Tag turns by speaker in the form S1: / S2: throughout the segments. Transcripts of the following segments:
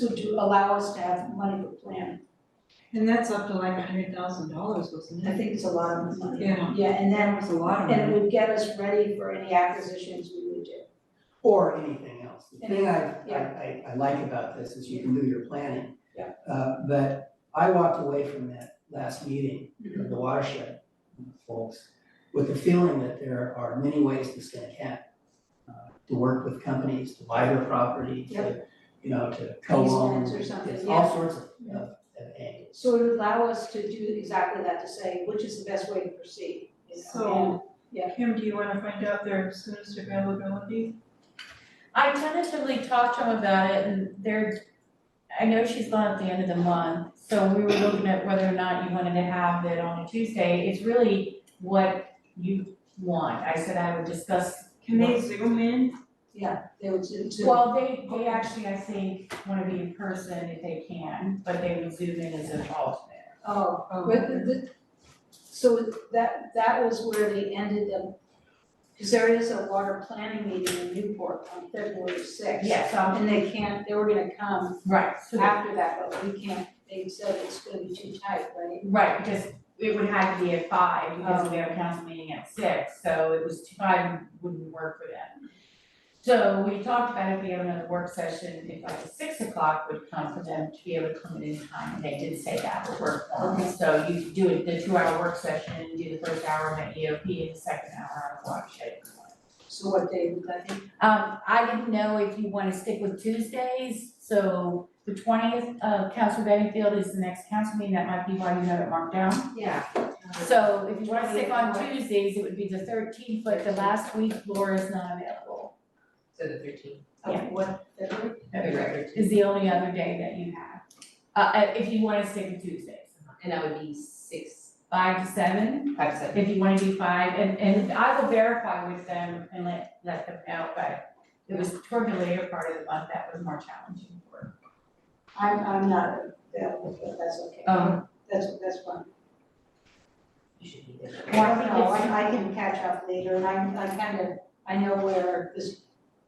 S1: to, to allow us to have money for plan.
S2: And that's up to like a hundred thousand dollars, wasn't
S1: I
S2: it?
S1: think it's a lot of money.
S2: Yeah,
S1: Yeah, and
S2: that
S1: then,
S2: was a lot of
S1: and
S2: money.
S1: it would get us ready for any acquisitions we would do.
S3: or anything else. The thing I, I,
S1: Yeah.
S3: I, I like about this is you can do your planning.
S1: Yeah.
S3: Uh, but I walked away from that last meeting of the watershed folks with the feeling that there are many ways to skin a cat. uh, To work with companies, to buy their property, to, you know, to co-own.
S1: Easements or something,
S3: It's
S1: yeah.
S3: all sorts of,
S1: Yeah.
S3: of, of angles.
S1: So it would allow us to do exactly that, to say, which is the best way to proceed, you know, and-
S2: So, Kim, do you wanna find out their soonest availability?
S4: I tentatively talked to him about it and they're, I know she's gone at the end of the month, so we were looking at whether or not you wanted to have it on a Tuesday. It's really what you want. I said I would discuss.
S2: Can they zoom in?
S1: they would do too.
S4: Well, they, they actually, I think, wanna be in person if they can, but they would zoom in as an alternate.
S1: Oh,
S2: Um,
S1: but the, the, so that, that was where they ended the, because there is a water planning meeting in Newport on February sixth.
S4: Yes, um,
S1: And they can't, they were gonna come
S4: right, so that-
S1: after that, but we can't, they said it's gonna be too tight, right?
S4: right, because it would have to be at five because we have a council meeting at six, so it was five wouldn't work for them. So we talked about if we have another work session, if like six o'clock would come for them to be able to come in in time, and they did say that would work for them. So you could do it, the two hour work session, and do the first hour on the EOP and the second hour on watershed.
S1: So what they, I think,
S4: Um, I didn't know if you wanna stick with Tuesdays, so the twentieth, uh, Council Benningfield is the next council meeting, that might be why you have it marked down.
S1: yeah.
S4: So if you wanna stick on
S1: 20th.
S4: Tuesdays, it would be the thirteenth, but the last week Laura's not available.
S5: So the thirteenth.
S1: Of what, February?
S4: Is the only other day that you have, uh, uh, if you wanna stick with Tuesdays,
S5: And that would be six,
S4: five to seven,
S5: five, seven.
S4: if you wanna do five, and, and I will verify with them and let, let them know, but it was toward the later part of the month that was more challenging for.
S1: I'm, I'm not available, but that's okay.
S4: Um,
S1: That's, that's fine.
S5: You should be there.
S4: Why don't we
S1: No,
S4: just-
S1: I, I can catch up later, and I'm, I kind of, I know where this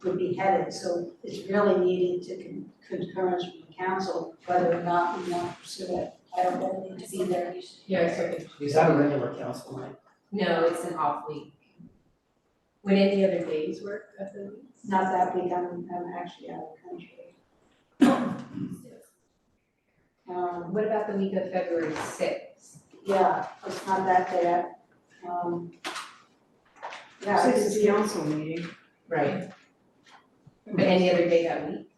S1: would be headed, so it's really needed to con- concurrence from the council, whether or not we want to pursue it. I don't really need to be there.
S5: Yeah, so it's-
S3: Is that a regular council night?
S5: no, it's an off week. Would any other days work of the weeks?
S1: Not that week, I'm, I'm actually out of the country. Um,
S5: What about the week of February sixth?
S1: yeah, it's not that bad. Um, yeah,
S2: Six
S1: it's,
S2: is the council meeting.
S5: Right. But any other day that week?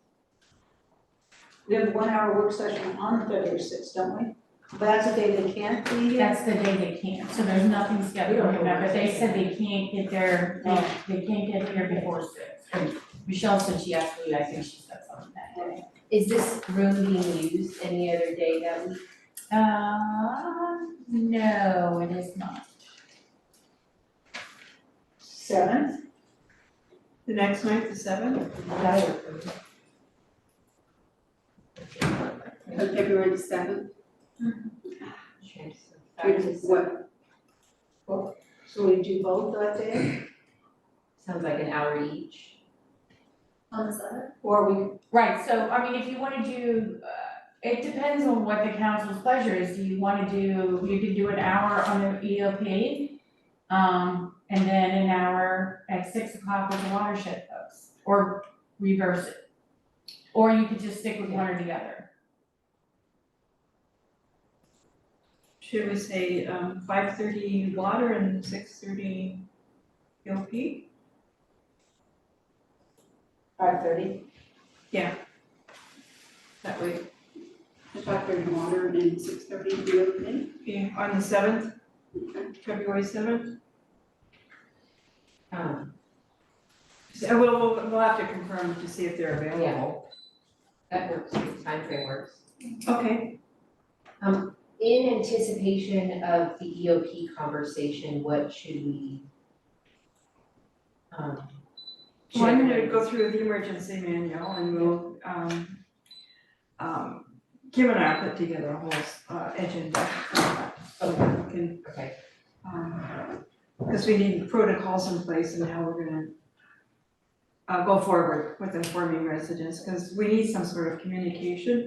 S1: we have one hour work session on February sixth, don't we? But that's the day they can't be here.
S4: That's the day they can't, so there's nothing scheduled, remember, they said they can't get there, they, they can't get here before six. And Michelle said she asked me, I think she said something that day.
S5: Is this room being used any other day that week?
S4: Uh, no, it is not.
S1: Seventh,
S2: The next night, the seventh?
S6: Of February the seventh,
S5: Five to
S6: what,
S1: Oh, so we do both that day?
S5: Sounds like an hour each.
S6: on the seventh?
S1: Or we,
S4: Right, so, I mean, if you wanna do, uh, it depends on what the council's pleasure is, do you wanna do, you could do an hour on the EOP? Um, and then an hour at six o'clock with the watershed folks, or reverse it. Or you could just stick with one or the other.
S2: Should we say, um, five thirty water and six thirty LP?
S1: five thirty,
S2: That way,
S6: Five thirty water and six thirty reopening.
S2: yeah, on the seventh,
S6: Okay.
S2: February seventh?
S5: Um,
S2: So we'll, we'll, we'll have to confirm to see if they're available.
S5: that works, Time frame works.
S2: Okay,
S5: In anticipation of the EOP conversation, what should we? um,
S2: well, I'm gonna
S5: should-
S2: go through the emergency manual and we'll, um, um, Kim and I will put together a whole, uh, agenda. So we can um,
S5: Okay,
S2: Because we need protocols in place and how we're gonna uh, go forward with informing residents, because we need some sort of communication